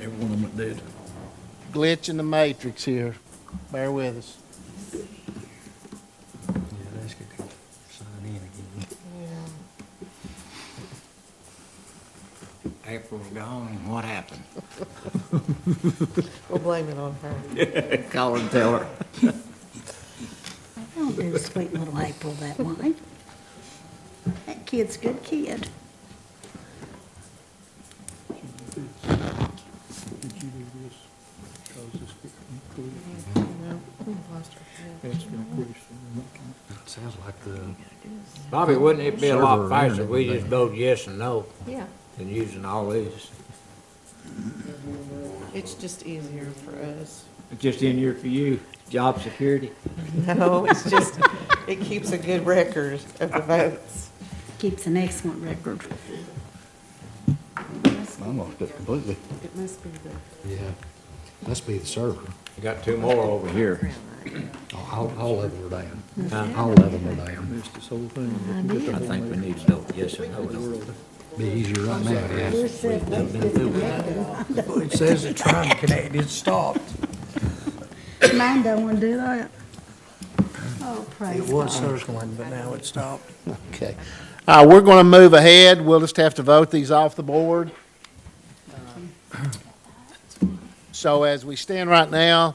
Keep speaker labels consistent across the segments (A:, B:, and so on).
A: Every one of them that did.
B: glitch in the matrix here. Bear with us.
C: Yeah, that's good. Sign in again. April's gone, and what happened?
D: We'll blame it on her.
C: Call and tell her.
E: I don't do Oh, sweet little April that way. That kid's a good kid.
A: Did you do this? Cause this include, that's been a question.
C: Sounds like the.
F: Bobby, wouldn't it be a
C: Server
F: lot
C: or
F: faster if we
C: internet.
F: just voted yes and no
D: Yeah,
F: than using all these?
D: it's just easier for us.
C: Just in here for you, job security.
D: No, it's just, it keeps a good record of the votes.
E: Keeps an excellent record.
C: I'm off it completely.
D: It must be the.
G: Yeah, must be the server.
F: You got two more over here.
G: All, all of them are down.
F: Huh?
G: All of them are down.
A: Missed this whole thing.
F: I think we need to vote yes and no. don't we?
G: Be easier right now, yeah.
C: It says it's trying to connect, it's stopped.
E: Mine don't want to do that. Oh, praise
C: It was
E: God.
C: circling, but now it's stopped.
B: Okay. Uh, we're gonna move ahead. We'll just have to vote these off the board. Uh, So as we stand right now,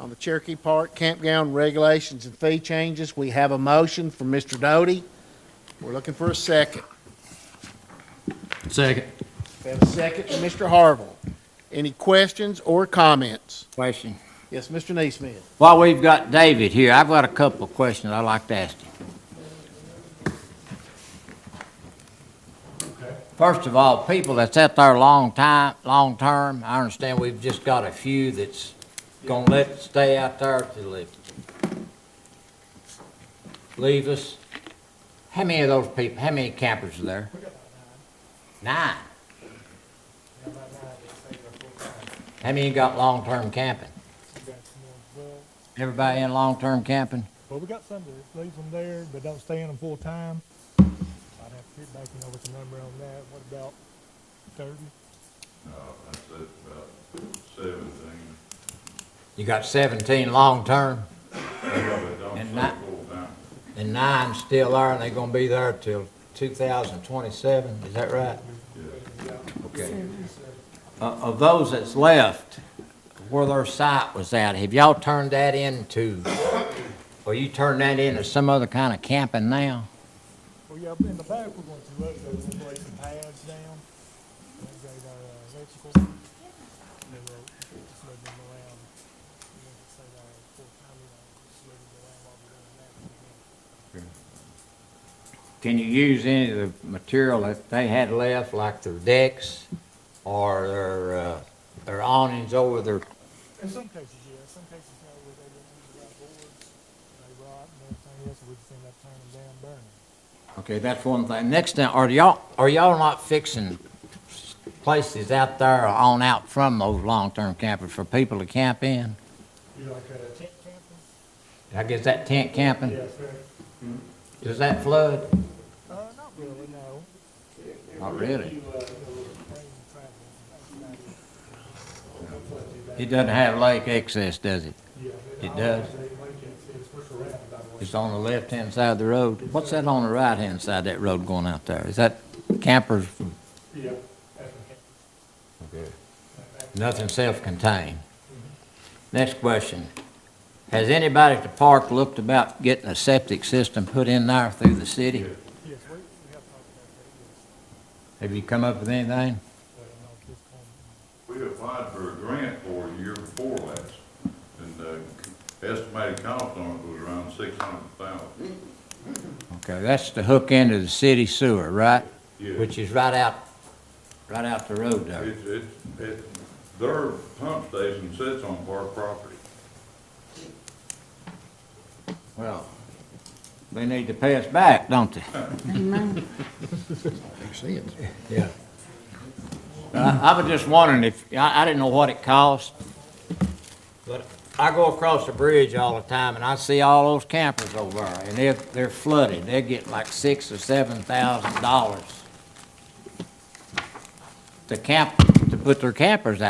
B: on the Cherokee Park campground regulations and fee changes, we have a motion from Mr. Doty. We're looking for a second.
G: Second.
B: We have a second from Mr. Harville. Any questions or comments?
F: Question.
B: Yes, Mr. Neesmith?
F: While we've got David here, I've got a couple of questions I'd like to ask him. First of all, people that's out there long time, long term, I understand we've just got a few that's gonna let it stay out there till they leave us. How many of those people, how many campers are there? Nine. How many got long-term camping?
H: Well,
F: Everybody in long-term camping?
H: we got some that leave them there, but don't stay in them full time. I'd have to get back, you know, with the number on that. What about thirty?
F: You got seventeen long-term? And nine, and nine still are, and they're gonna be there till two thousand twenty-seven, is that right? Okay. Uh, of those that's left, where their site was at, have y'all turned that into, or you turned that into some other kind of camping now?
H: Well, yeah, in the back, we're going to look, we're going to lay some pads down. Upgrade our uh, electrical. And then we'll just move them around. You know, say our full-time, you know, just move them around while we're doing that.
F: Can you use any of the material that they had left, like their decks or their, uh, their awnings over their
H: In some cases, yeah, in some cases, you know, where they don't use the right boards, they rot and everything else, we just end up turning them down, burning them.
F: Okay, that's one thing. Next thing, are y'all, are y'all not fixing places out there on out from those long-term campers for people to camp in?
H: You like a tent camping?
F: I guess that tent camping,
H: sir.
F: does that flood?
H: Uh, not really, no.
F: Not really.
H: You, uh, bring travel, outside.
F: It doesn't have lake excess, does it?
H: Yeah.
F: It does.
H: They like it, it's what's around, by the way.
F: It's on the left-hand side of the road. What's that on the right-hand side of that road going out there? Is that campers?
H: Yeah. that's okay.
F: Nothing self-contained. Next question. Has anybody at the park looked about getting a septic system put in there through the city?
H: Yes, we, we have talked about that, yes.
F: Have you come up with anything?
H: But I know this one,
I: We applied for a grant for a year before last, and the estimated cost on it was around six hundred thousand.
F: Okay, that's the hook end of the city sewer, right?
I: Yeah.
F: Which is right out, right out the road there.
I: It's, it's, it, their pump station sits on park property.
F: Well, they need to pay us back, don't they?
E: Amen.
G: Makes sense.
F: Yeah. I, I was just wondering if, I, I didn't know what it cost, but I go across the bridge all the time and I see all those campers over there and they're, they're flooded. They get like six or seven thousand dollars to camp, to put their campers out.